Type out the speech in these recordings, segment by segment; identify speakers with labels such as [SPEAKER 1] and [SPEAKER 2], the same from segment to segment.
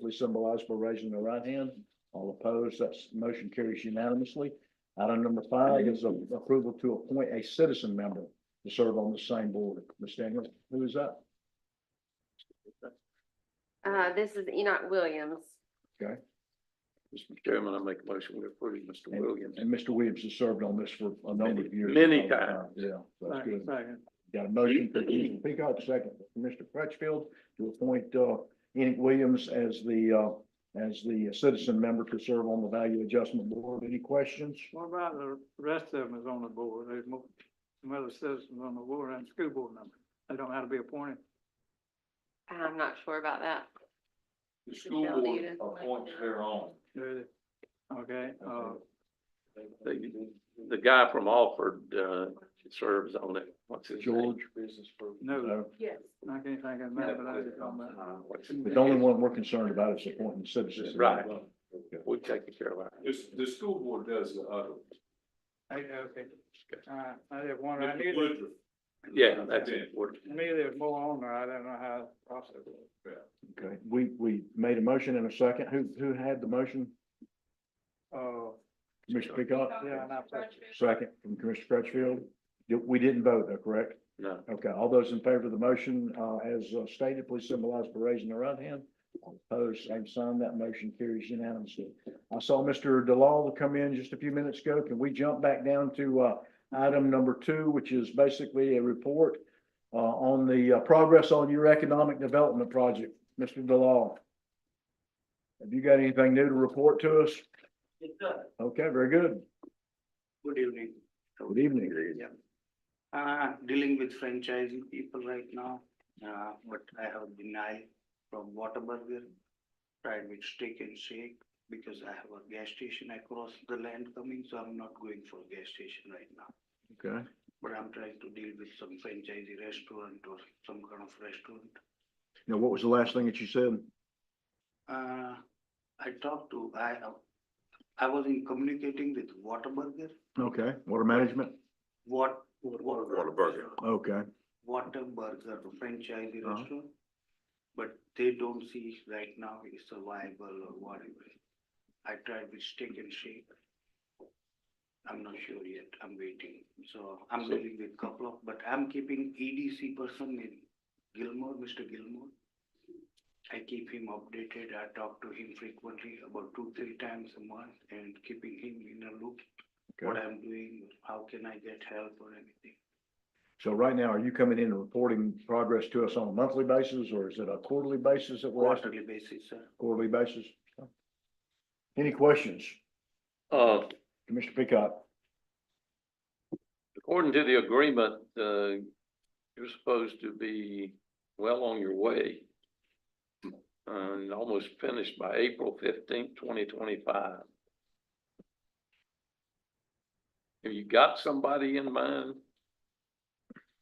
[SPEAKER 1] please symbolize by raising the right hand. All opposed, that's motion carries unanimously. Item number five is a- approval to appoint a citizen member to serve on the same board. Ms. Daniels, who is that?
[SPEAKER 2] Uh, this is Enoch Williams.
[SPEAKER 3] Mr. Chairman, I make a motion to approve Mr. Williams.
[SPEAKER 1] And Mr. Williams has served on this for a number of years.
[SPEAKER 3] Many times.
[SPEAKER 1] Yeah, that's good.
[SPEAKER 3] Second.
[SPEAKER 1] Got a motion for Commissioner Peacock, second for Commissioner Crutchfield to appoint uh Enoch Williams as the uh as the citizen member to serve on the Value Adjustment Board. Any questions?
[SPEAKER 4] What about the rest of them is on the board? There's more, some other citizens on the board and school board members. They don't have to be appointed.
[SPEAKER 2] I'm not sure about that.
[SPEAKER 5] The school
[SPEAKER 2] Michelle, do you
[SPEAKER 5] board
[SPEAKER 2] just want
[SPEAKER 5] appoints
[SPEAKER 2] to-
[SPEAKER 5] their own.
[SPEAKER 4] do they? Okay, uh,
[SPEAKER 3] The, the guy from Alford, uh, serves on it. What's his name?
[SPEAKER 1] George?
[SPEAKER 5] Business group.
[SPEAKER 4] no,
[SPEAKER 1] No.
[SPEAKER 2] Yes.
[SPEAKER 4] I can't think of
[SPEAKER 5] Uh,
[SPEAKER 4] that, but I just don't know.
[SPEAKER 3] What's his
[SPEAKER 1] The
[SPEAKER 3] name?
[SPEAKER 1] only one we're concerned about is appointing citizens.
[SPEAKER 3] Right. We take care of our.
[SPEAKER 5] The, the school board does the other.
[SPEAKER 4] I- Okay, all right, I just wondered, I knew
[SPEAKER 5] Mr.
[SPEAKER 4] there,
[SPEAKER 5] Woodruff.
[SPEAKER 3] Yeah, that's important.
[SPEAKER 4] to me there's more on there, I don't know how the process was.
[SPEAKER 1] Okay, we we made a motion in a second. Who who had the motion?
[SPEAKER 4] Uh,
[SPEAKER 1] Commissioner Peacock?
[SPEAKER 4] yeah, and I, think-
[SPEAKER 1] Second from Commissioner Crutchfield. Did- We didn't vote though, correct?
[SPEAKER 3] No.
[SPEAKER 1] Okay, all those in favor of the motion, uh, as uh, stated, please symbolize by raising the right hand. All Opposed, same sign. That motion carries unanimously. I saw Mr. DeLaw come in just a few minutes ago. Can we jump back down to, uh, item number two, which is basically a report, uh, on the uh, progress on your economic development project? Mr. DeLaw? Have you got anything new to report to us? Okay, very good.
[SPEAKER 6] Good evening.
[SPEAKER 1] Good evening.
[SPEAKER 6] Uh, dealing with franchising people right now, uh, but I have denial from Whataburger. Tried with steak and shake because I have a gas station across the land coming, so I'm not going for gas station right now.
[SPEAKER 1] Okay.
[SPEAKER 6] But I'm trying to deal with some franchisee restaurant or some kind of restaurant.
[SPEAKER 1] Now, what was the last thing that you said?
[SPEAKER 6] Uh, I talked to, I, I was in communicating with Whataburger,
[SPEAKER 1] Okay, water management?
[SPEAKER 6] what?
[SPEAKER 3] Whataburger.
[SPEAKER 1] Okay.
[SPEAKER 6] Whataburger franchisee
[SPEAKER 1] Uh-huh.
[SPEAKER 6] restaurant. But they don't see right now is survival or whatever. I tried with steak and shake. I'm not sure yet, I'm waiting, so I'm dealing with couple of, but I'm keeping EDC person in Gilmore, Mr. Gilmore. I keep him updated, I talk to him frequently, about two, three times a month, and keeping him in a loop. What I'm doing, how can I get help or anything.
[SPEAKER 1] So right now, are you coming in and reporting progress to us on a monthly basis, or is it a quarterly basis that we're asking?
[SPEAKER 6] quarterly basis, sir.
[SPEAKER 1] Quarterly basis? Any questions?
[SPEAKER 3] Uh,
[SPEAKER 1] Commissioner Peacock?
[SPEAKER 3] according to the agreement, uh, you're supposed to be well on your way. And almost finished by April fifteenth, twenty twenty-five. Have you got somebody in mind?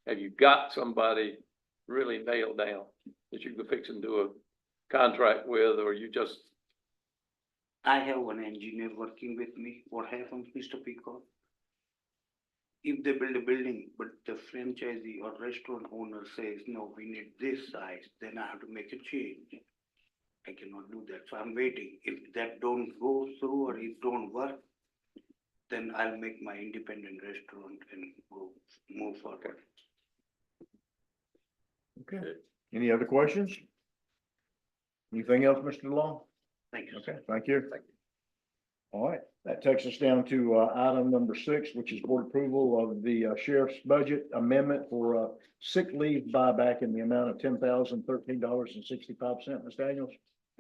[SPEAKER 3] Have you got somebody really nailed down that you could fix and do a contract with, or you just,
[SPEAKER 6] I have one engineer working with me. What happens, Mr. Peacock? If they build a building, but the franchisee or restaurant owner says, no, we need this size, then I have to make a change. I cannot do that, so I'm waiting. If that don't go through or it don't work, then I'll make my independent restaurant and go move forward.
[SPEAKER 1] Okay. Any other questions? Anything else, Mr. Law?
[SPEAKER 6] Thank you. sir.
[SPEAKER 1] Okay, thank you. All right, that takes us down to uh, item number six, which is board approval of the uh, sheriff's budget amendment for uh, sick leave buyback in the amount of ten thousand thirteen dollars and sixty-five cents. Ms. Daniels?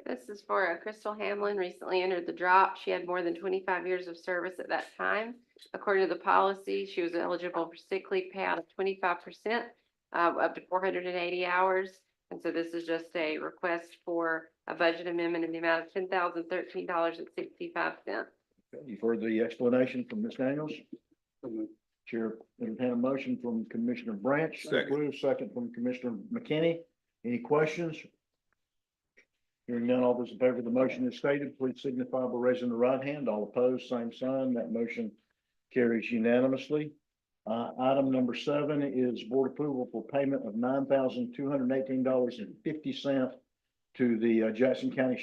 [SPEAKER 2] This is for uh, Crystal Hamlin, recently entered the drop. She had more than twenty-five years of service at that time. According to the policy, she was eligible for sick leave payout of twenty-five percent, uh, up to four hundred and eighty hours. And so this is just a request for a budget amendment in the amount of ten thousand thirteen dollars and sixty-five cents.
[SPEAKER 1] You've heard the explanation from Ms. Daniels.
[SPEAKER 6] Mhm.
[SPEAKER 1] Chair, entertain a motion from Commissioner Branch. Second. Second from Commissioner McKinney. Any questions? Hearing none, all those in favor of the motion as stated, please signify by raising the right hand. All opposed, same sign. That motion carries unanimously. Uh, item number seven is board approval for payment of nine thousand two hundred and eighteen dollars and fifty cent to the uh, Jackson County